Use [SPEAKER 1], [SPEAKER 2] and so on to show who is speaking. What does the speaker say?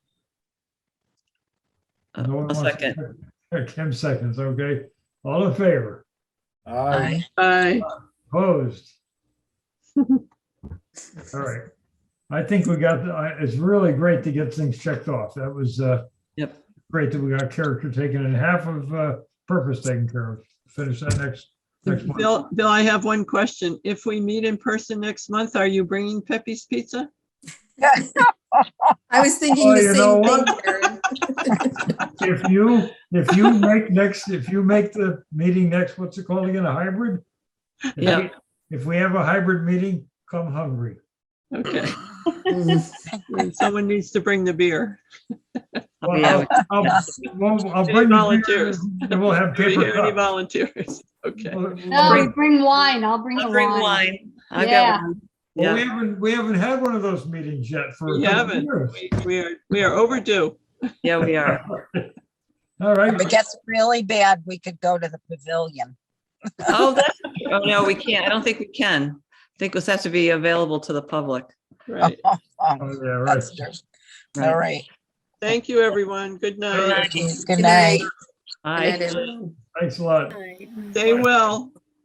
[SPEAKER 1] Uh,
[SPEAKER 2] No one
[SPEAKER 1] A
[SPEAKER 2] wants-
[SPEAKER 1] second.
[SPEAKER 2] Kim seconds, okay. All in favor?
[SPEAKER 3] Aye.
[SPEAKER 4] Aye.
[SPEAKER 2] Opposed? All right. I think we got, the- I- it's really great to get things checked off. That was uh,
[SPEAKER 1] Yep.
[SPEAKER 2] great that we got character taken and half of uh, purpose taken care of. Finish that next, next month.
[SPEAKER 4] Bill, Bill, I have one question. If we meet in person next month, are you bringing Pepe's Pizza?
[SPEAKER 3] I was thinking
[SPEAKER 2] Oh,
[SPEAKER 3] the
[SPEAKER 2] you
[SPEAKER 3] same
[SPEAKER 2] know
[SPEAKER 3] thing.
[SPEAKER 2] what?
[SPEAKER 3] Karen.
[SPEAKER 2] If you, if you make next, if you make the meeting next, what's it called again, a hybrid? If we-
[SPEAKER 1] Yeah.
[SPEAKER 2] If we have a hybrid meeting, come hungry.
[SPEAKER 4] Okay,
[SPEAKER 3] Mm.
[SPEAKER 4] And someone needs to bring the beer.
[SPEAKER 2] Well,
[SPEAKER 1] Yeah.
[SPEAKER 2] I'll- I'll, well, I'll
[SPEAKER 4] Any
[SPEAKER 2] bring the
[SPEAKER 4] volunteers?
[SPEAKER 2] beer And we'll have
[SPEAKER 4] Do we
[SPEAKER 2] paper
[SPEAKER 4] hear any
[SPEAKER 2] cups.
[SPEAKER 4] volunteers? Okay.
[SPEAKER 2] Well,
[SPEAKER 5] No,
[SPEAKER 2] well,
[SPEAKER 5] bring wine. I'll bring the
[SPEAKER 1] I'll bring
[SPEAKER 5] wine.
[SPEAKER 1] wine. I've got
[SPEAKER 5] Yeah.
[SPEAKER 1] wine.
[SPEAKER 2] We
[SPEAKER 1] Yeah.
[SPEAKER 2] haven't, we haven't had one of those meetings yet for. a
[SPEAKER 4] We
[SPEAKER 2] couple
[SPEAKER 4] haven't.
[SPEAKER 2] years.
[SPEAKER 4] We- We are, we are overdue.
[SPEAKER 1] Yeah, we are.
[SPEAKER 2] All
[SPEAKER 6] If it
[SPEAKER 2] right,
[SPEAKER 6] gets really bad, we could go to the pavilion.
[SPEAKER 1] Oh, that's, oh, no, we can't. I don't think we can. I think this has to be available to the public.
[SPEAKER 4] Right.
[SPEAKER 2] oh,
[SPEAKER 6] Um,
[SPEAKER 2] yeah, right.
[SPEAKER 6] that's just- All right.
[SPEAKER 4] Thank you, everyone. Good night.
[SPEAKER 6] Good night.
[SPEAKER 1] Aye.
[SPEAKER 3] Good night, everyone.
[SPEAKER 2] Thanks a lot.
[SPEAKER 4] Stay well.